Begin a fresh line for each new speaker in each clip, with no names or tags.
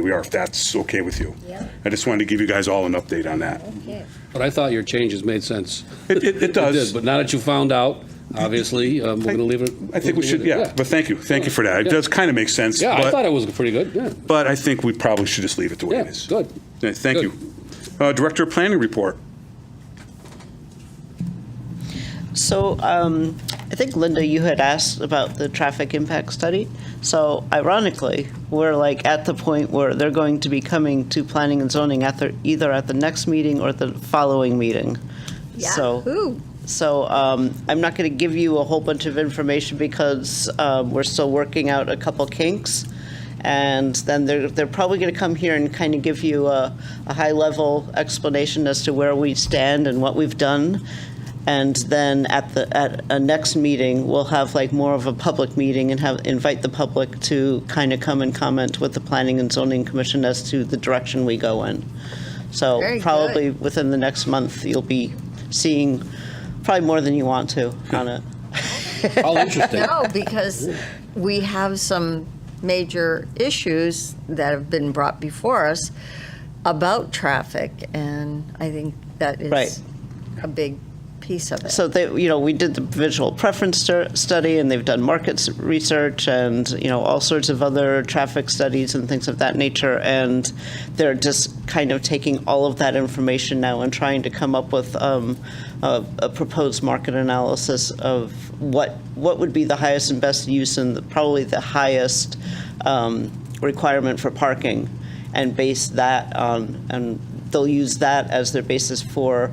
we are, if that's okay with you.
Yeah.
I just wanted to give you guys all an update on that.
Okay.
But I thought your changes made sense.
It, it, it does.
did, But now that you found out, obviously, um, we're going to leave it.
I think we should, yeah, but thank you, thank you for that. It does kind of make sense,
Yeah, I thought
but,
it was pretty good, yeah.
but I think we probably should just leave it the way it
Yeah,
is.
good.
Yeah, Thank
Good.
you. Uh, Director of Planning Report.
So um, I think, Linda, you had asked about the traffic impact study. So ironically, we're like at the point where they're going to be coming to planning and zoning at the, either at the next meeting or the following meeting. So.
Yahoo!
So um, I'm not going to give you a whole bunch of information because uh, we're still working out a couple kinks. And then they're, they're probably going to come here and kind of give you a, a high-level explanation as to where we stand and what we've done. And then at the, at a next meeting, we'll have like more of a public meeting and have, invite the public to kind of come and comment with the Planning and Zoning Commission as to the direction we go in. So
Very good.
probably within the next month, you'll be seeing probably more than you want to on it.
All interesting.
No, because we have some major issues that have been brought before us about traffic, and I think that
Right.
is a big piece of it.
So they, you know, we did the visual preference stu- study, and they've done market s- research, and you know, all sorts of other traffic studies and things of that nature. And they're just kind of taking all of that information now and trying to come up with um, a, a proposed market analysis of what what would be the highest and best use, and the, probably the highest um, requirement for parking, and base that on and. They'll use that as their basis for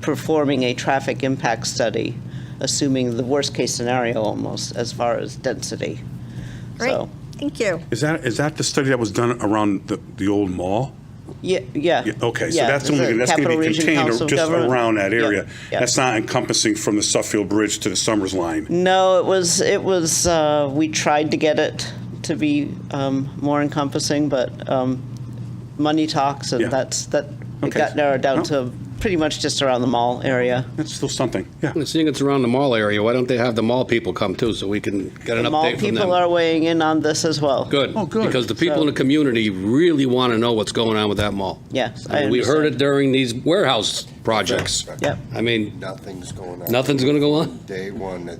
performing a traffic impact study, assuming the worst-case scenario almost, as far as density.
Great,
So,
thank you.
Is that, is that the study that was done around the, the old mall?
Yeah, yeah.
Yeah, Okay, so
yeah,
that's only,
the
that's going to
Capital
be
Region
contained
Council
or
of
just
Government.
around that
Yeah,
area.
yeah.
That's not encompassing from the Suffield Bridge to the Summers Line.
No, it was, it was, uh, we tried to get it to be um, more encompassing, but um, money talks,
Yeah.
and that's, that, it
Okay.
got narrowed down
Well-
to pretty much just around the mall area.
That's still something, yeah.
Well, Seeing it's around the mall area, why don't they have the mall people come too, so we can get an
Mall
update from
people are
them?
weighing in on this as well.
Good.
Oh, good.
Because the people in the community really want to know what's going on with that mall.
Yes, I
And We heard
understand.
it during these warehouse projects.
Yep.
I mean,
Nothing's going on.
nothing's going to go on,
Day one, that,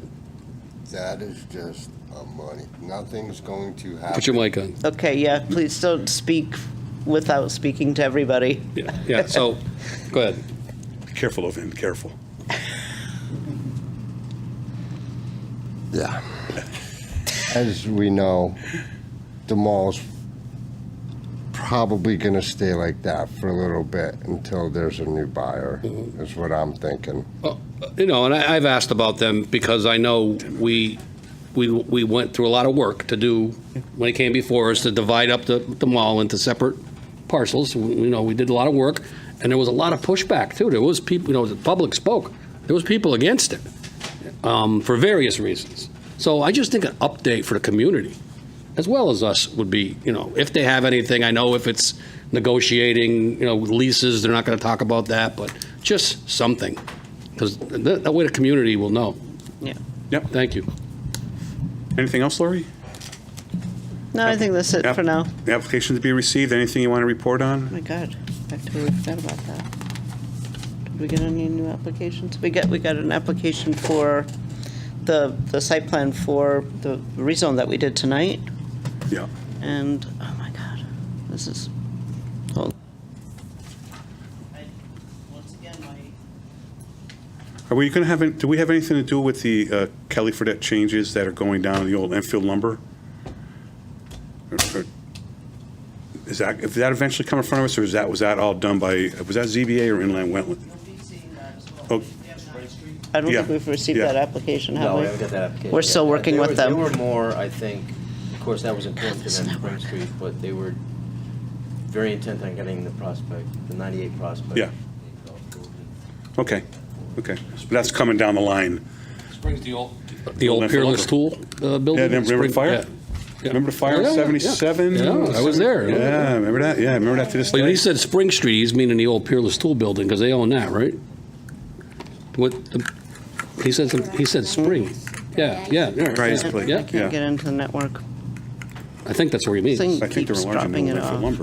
that is just a money, nothing's going to happen.
put your mic on.
Okay, yeah, please don't speak without speaking to everybody.
Yeah, yeah, so, go ahead.
Be Careful of him, careful.
Yeah. As we know, the mall's probably gonna stay like that for a little bit until there's a new buyer,
Mm-hmm.
is what I'm thinking.
Well, Uh, You know, and I, I've asked about them because I know we, we, we went through a lot of work to do, when it came before us, to divide up the, the mall into separate parcels. We- You know, we did a lot of work, and there was a lot of pushback, too. There was people, you know, the public spoke. There was people against it, um, for various reasons. So I just think an update for the community, as well as us, would be, you know, if they have anything, I know if it's negotiating, you know, leases, they're not gonna talk about that, but just something. Because that, that way the community will know.
Yeah.
Yep.
Thank you.
Anything else, Lori?
No, I think that's it
App-
for now.
The application to be received, anything you want to report on?
Oh my God, I totally forgot about that. Did we get any new applications? We got, we got an application for the, the site plan for the rezone that we did tonight,
Yeah.
and, oh my God, this is, hold. Once again, my.
Are we going to have, any- do we have anything to do with the uh, Kelly Fredette changes that are going down the old Enfield lumber? Or- or- Is that, is that eventually come in front of us, or is that, was that all done by, was that ZBA or inland wetland? Oh,
I don't
Yeah,
think we've received
yeah.
that application, have
No,
we?
we haven't got that application.
We're
yet.
still
Uh,
working
there
with
was-
them.
There were more, I think, of course, that was important to
this
them,
network.
Spring Street, but they were very intent on getting the prospect, the 98 prospect.
Yeah. Okay, okay. But That's coming down the line.
Springs the old. The old
Left
Peerless
over.
Tool uh, building.
Yeah, remember
Spring-
fire?
yeah. Yeah.
Remember the fire
Yeah,
in
yeah.
77?
Yeah, I was there.
Yeah, remember that? Yeah, remember that to this
But when
day?
he said Spring Street, he's meaning the old Peerless Tool building, because they own that, right? What, the- he said, some- he said Spring. Yeah, yeah.
Right, it's like-
Yeah.
I can't get into the network.
I I think that's where he means.
Thing
I think they're
keeps
enlarging
dropping
the
it
Enfield
off.
lumber.